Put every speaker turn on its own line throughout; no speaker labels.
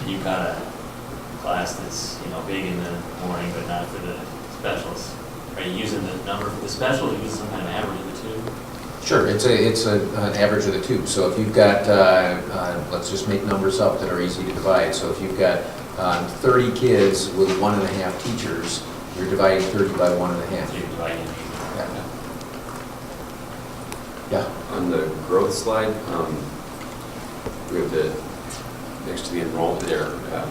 and you've got a class that's, you know, big in the morning, but not for the specials. Are you using the number for the special, or using some kind of average of the two?
Sure, it's a, it's a, an average of the two, so if you've got, uh, uh, let's just make numbers up that are easy to divide, so if you've got, um, thirty kids with one and a half teachers, you're dividing thirty by one and a
So
half.
you're dividing it.
Yeah. Yeah,
On the growth slide, um, we have the, next to the enrollment there, um,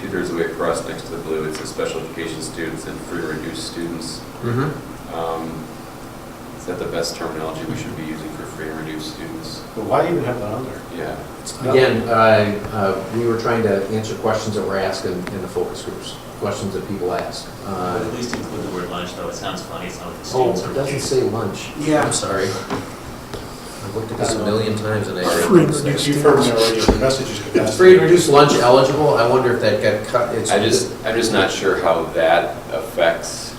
two-thirds of the way across, next to the blue, it says special education students and free or reduced students.
mm-hmm,
Um, Is that the best terminology we should be using for free and reduced students?
But why even have that on there?
Yeah.
again, uh, uh, we were trying to answer questions that were asked in, in the focus groups, questions that people ask.
But At
Uh,
least include the word lunch, though, it sounds funny, it's not what the
Oh,
students are.
it doesn't say lunch.
Yeah.
I'm sorry. I've looked at this a million times and I.
Free and reduced.
You've heard me already, the message is
It's
capacity.
free and reduced lunch eligible, I wonder if that got cut, it's.
I just, I'm just not sure how that affects,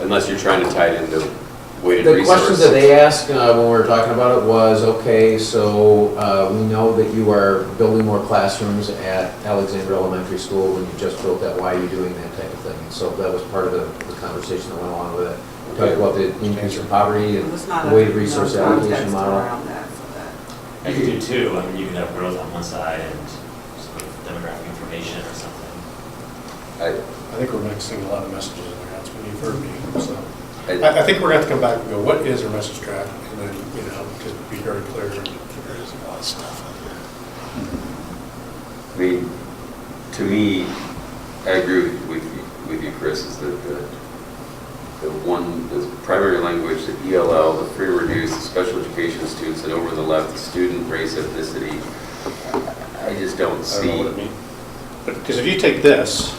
unless you're trying to tie it into weighted
The
resource.
questions that they asked uh, when we were talking about it was, okay, so uh, we know that you are building more classrooms at Alexandra Elementary School when you just built that, why are you doing that type of thing? And So that was part of the the conversation that went along with it. Talked about the increase in poverty
It
and
was not
the
a,
way resource
no
allocation
context
model.
around that, so that,
I could do two, I mean, you could have growth on one side and sort of demographic information or something.
I,
I think we're mixing a lot of messages in there, that's what you've heard me, so.
I,
I, I think we're gonna have to come back and go, what is our message track? And then, you know, because be very clear, there is a lot of stuff out there.
I mean, to me, I agree with, with you- with you, Chris, is that the, the one, the primary language, the ELL, the free and reduced, the special education students, and over the left, the student race ethnicity, I just don't
I don't know what it
see.
means. But, because if you take this,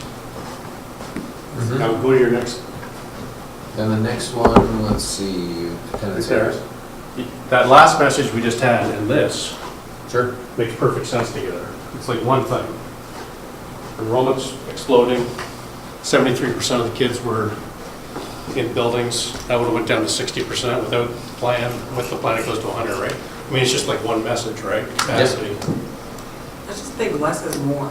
Mhm.
now go to your next,
Then the next one, let's see,
right
attendance
there.
errors.
That last message we just had and this
Sure.
makes perfect sense together. It's like one thing. Enrollment's exploding, seventy-three percent of the kids were in buildings. That would've went down to sixty percent without the plan, with the plan it goes to hundred, right? I mean, it's just like one message, right? Capacity.
I just think less is more.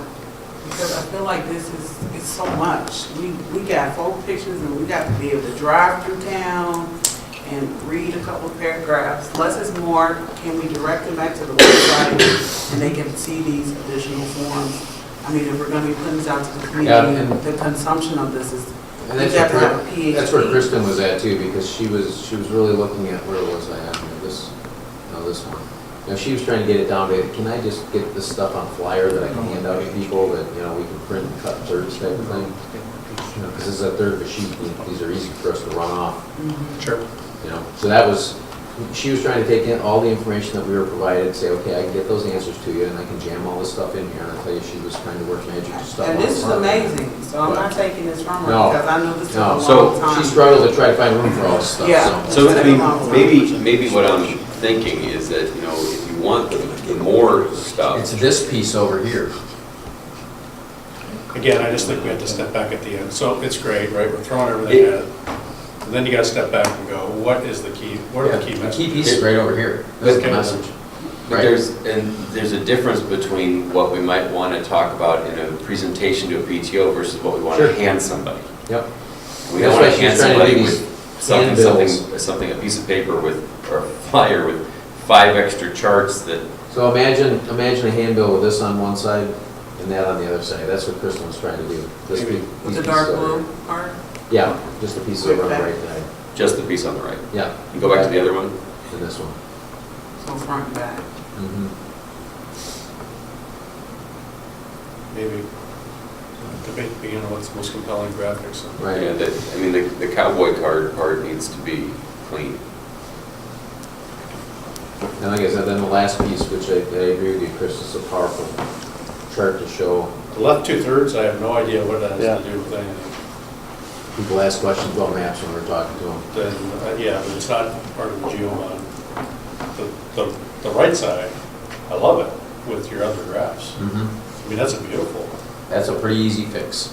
Because I feel like this is, it's so much. We, we got full pictures and we got to be able to drive through town and read a couple of paragraphs. Less is more. Can we direct them back to the website and they can see these additional forms? I mean, if we're gonna be putting this out to the
Yeah, and-
community, the consumption of this is,
And
you
that's
have to have a
where, Kri-
PhD.
that's where Kristen was at too, because she was, she was really looking at, where was I at, here? this, no, this one. Now, she was trying to get it down to, can I just get this stuff on flyer that I can hand out to people that, you know, we can print and cut thirds type of thing? You know, because this is a third of a sheet, and these are easy for us to run off,
Sure.
you know? So that was, she was trying to take in all the information that we were provided, say, okay, I can get those answers to you, and I can jam all this stuff in here, and I tell you, she was trying to work magic to stuff.
And
on
this is
front.
amazing, so I'm not taking this from her,
No.
because I know this took
No,
a long
so she
time.
struggled to try to find room for all this stuff,
Yeah.
so.
So, I mean, maybe, maybe what I'm thinking is that, you know, if you want the the more
It's
stuff,
this piece over here.
Again, I just think we have to step back at the end. So it's great, right? We're throwing everything at it. And Then you gotta step back and go, what is the key, what are the
Yeah, The
key
key
messages?
piece is right over here. That's the
Okay.
message.
But there's, and there's a difference between what we might want to talk about in a presentation to a PTO versus what we want
Sure.
to hand somebody.
Yep.
We
That's
don't
why
want to
she's
hand
trying to
somebody
do
with
these
something,
handbills.
something, something, a piece of paper with, or a flyer with five extra charts that,
So imagine, imagine a handbill with this on one side and that on the other side. That's what Kristen was trying to do. This
Maybe.
big- these
With the
pieces
dark
over
blue
here.
part?
Yeah, just the pieces over on the
Okay.
right side.
just the piece on the right.
Yeah.
You go back to the other one?
And this one.
So front and back.
Mhm.
Maybe uh, debate begin on what's the most compelling graphics.
Yeah,
Right.
that, I mean, the the cowboy card part needs to be clean.
And like I said, then the last piece, which I, I agree with you, Chris, is a powerful chart to show.
The left two-thirds, I have no idea what that has to do with anything.
People ask questions about maps when we're talking to them.
Then, uh, yeah, but it's not part of the GeoMod. The, the, the right side, I love it with your other graphs.
Mm-hmm.
Mhm.
I mean, that's a beautiful.
That's a pretty easy fix.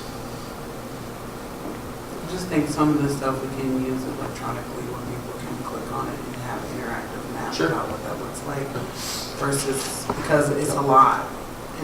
I just think some of the stuff we can use electronically where people can click on it and have an interactive map
Sure.
about what that looks like versus, because it's a lot.